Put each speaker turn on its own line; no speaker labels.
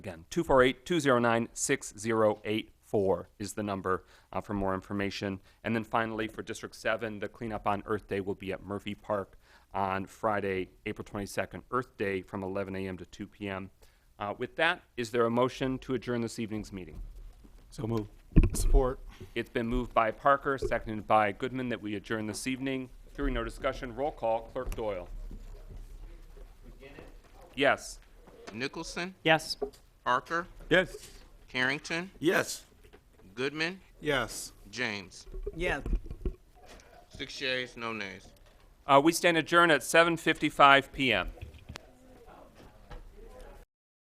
Again, 248 209 6084 is the number uh, for more information. And then finally, for District 7, the cleanup on Earth Day will be at Murphy Park on Friday, April 22nd, Earth Day, from 11 a.m. to 2 p.m. Uh, with that, is there a motion to adjourn this evening's meeting?
So moved. Support.
It's been moved by Parker, seconded by Goodman, that we adjourn this evening. Hearing no discussion, roll call, Clerk Doyle. Yes.
Nicholson,
Yes.
Parker,
Yes.
Carrington,
Yes.
Goodman,
Yes.
James.
Yes.
Six yeas, no nays.
Uh, we stand adjourned at 7:55 p.m.